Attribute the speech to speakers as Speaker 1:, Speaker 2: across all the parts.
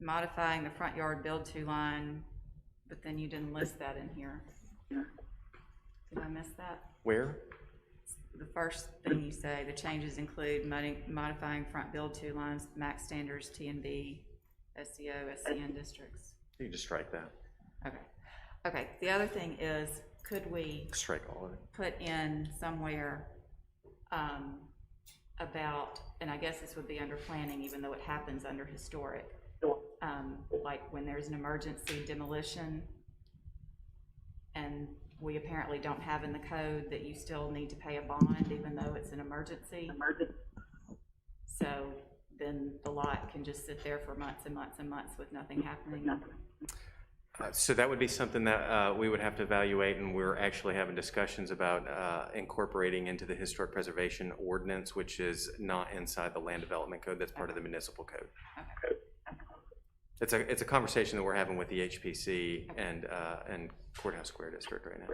Speaker 1: modifying the front yard build to line, but then you didn't list that in here. Did I miss that?
Speaker 2: Where?
Speaker 1: The first thing you say, the changes include modi- modifying front build to lines, max standards, T and B, SEO, SCN districts.
Speaker 2: You can just strike that.
Speaker 1: Okay, okay, the other thing is, could we
Speaker 2: Strike all of it.
Speaker 1: put in somewhere um, about, and I guess this would be under planning, even though it happens under historic, um, like when there's an emergency demolition, and we apparently don't have in the code that you still need to pay a bond even though it's an emergency. So then the lot can just sit there for months and months and months with nothing happening.
Speaker 2: Uh, So that would be something that uh, we would have to evaluate, and we're actually having discussions about uh, incorporating into the historic preservation ordinance, which is not inside the land development code, that's part of the municipal code. It's a, it's a conversation that we're having with the HPC and, uh, and Courthouse Square District right now.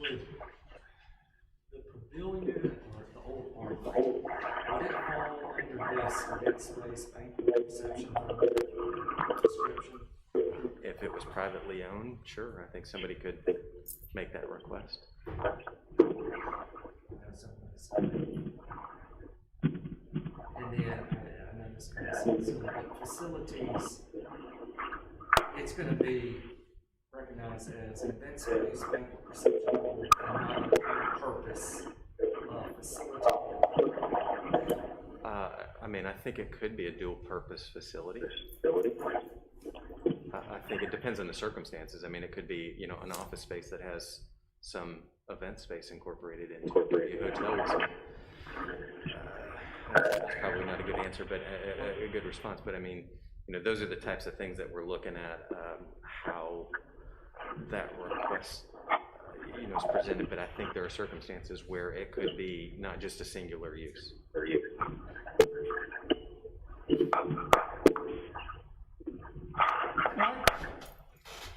Speaker 3: was the pavilion or the old park, would it fall under this dead space banquet exception from the description?
Speaker 2: If it was privately owned, sure, I think somebody could make that request.
Speaker 3: That's something that's- And then, I- I know this kind of sounds silly, but facilities, it's gonna be recognized as a dead space banquet reception and not a purpose of facility.
Speaker 2: Uh, I mean, I think it could be a dual-purpose facility. I, I think it depends on the circumstances. I mean, it could be, you know, an office space that has some event space incorporated into it, could be a hotel. or something. Uh, That's probably not a good answer, but a, a, a good response, but I mean, you know, those are the types of things that we're looking at, um, how that request, uh, you know, is presented, but I think there are circumstances where it could be not just a singular use.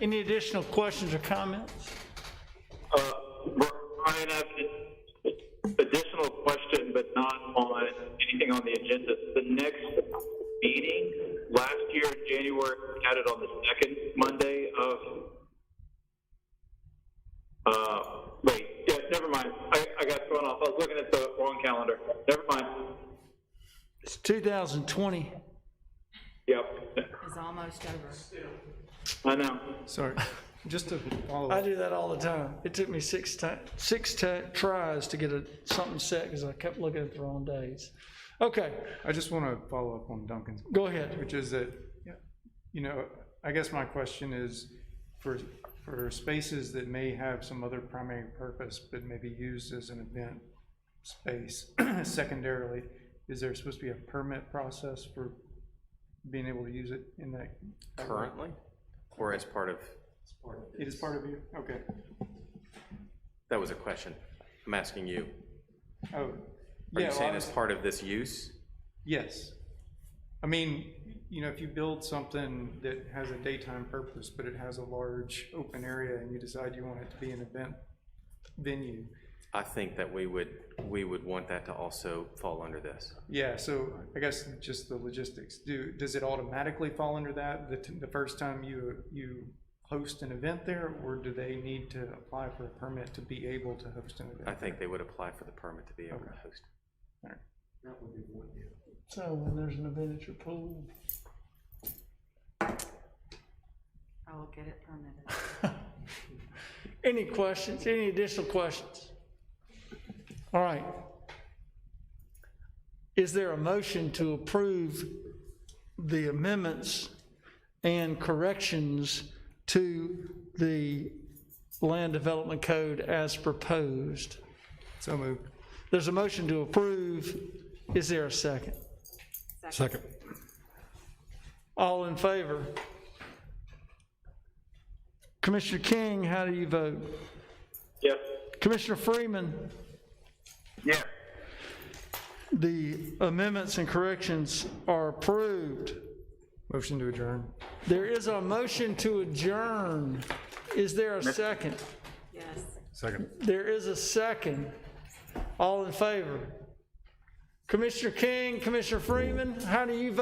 Speaker 4: Any additional questions or comments?
Speaker 5: Uh, Brian, I have an additional question, but not on anything on the agenda. The next meeting, last year in January, we had it on the second Monday of, uh, wait, yeah, never mind. I, I got thrown off. I was looking at the wrong calendar. Never mind.
Speaker 4: It's 2020.
Speaker 5: Yep,
Speaker 1: It's almost over.
Speaker 5: I know.
Speaker 6: Sorry, just to follow
Speaker 4: I
Speaker 6: up,
Speaker 4: do that all the time. It took me six ti, six ti- tries to get a, something set because I kept looking at the wrong days. Okay,
Speaker 6: I just want to follow up on Duncan's,
Speaker 4: go ahead.
Speaker 6: which is that, you know, I guess my question is for, for spaces that may have some other primary purpose, but maybe used as an event space secondarily, is there supposed to be a permit process for being able to use it in that?
Speaker 2: currently, or as part of,
Speaker 6: It is part of you? Okay.
Speaker 2: that was a question, I'm asking you.
Speaker 6: Oh,
Speaker 2: Are
Speaker 6: yeah,
Speaker 2: you
Speaker 6: well,
Speaker 2: saying
Speaker 6: I
Speaker 2: as
Speaker 6: was-
Speaker 2: part of this use?
Speaker 6: yes. I mean, you know, if you build something that has a daytime purpose, but it has a large open area and you decide you want it to be an event venue,
Speaker 2: I think that we would, we would want that to also fall under this.
Speaker 6: yeah, so I guess just the logistics. Do, does it automatically fall under that, the, t- the first time you, you host an event there? Or do they need to apply for a permit to be able to host an
Speaker 2: I
Speaker 6: event?
Speaker 2: think they would apply for the permit to be able to host.
Speaker 4: So when there's an event at your pool.
Speaker 1: I'll get it permitted.
Speaker 4: Any questions, any additional questions? All right. Is there a motion to approve the amendments and corrections to the land development code as proposed?
Speaker 6: So moved.
Speaker 4: There's a motion to approve. Is there a second?
Speaker 1: Second.
Speaker 4: All in favor? Commissioner King, how do you vote?
Speaker 5: Yep.
Speaker 4: Commissioner Freeman?
Speaker 5: Yeah.
Speaker 4: The amendments and corrections are approved.
Speaker 6: Motion to adjourn.
Speaker 4: There is a motion to adjourn. Is there a second?
Speaker 1: Yes.
Speaker 4: There is a second. All in favor? Commissioner King, Commissioner Freeman, how do you vote?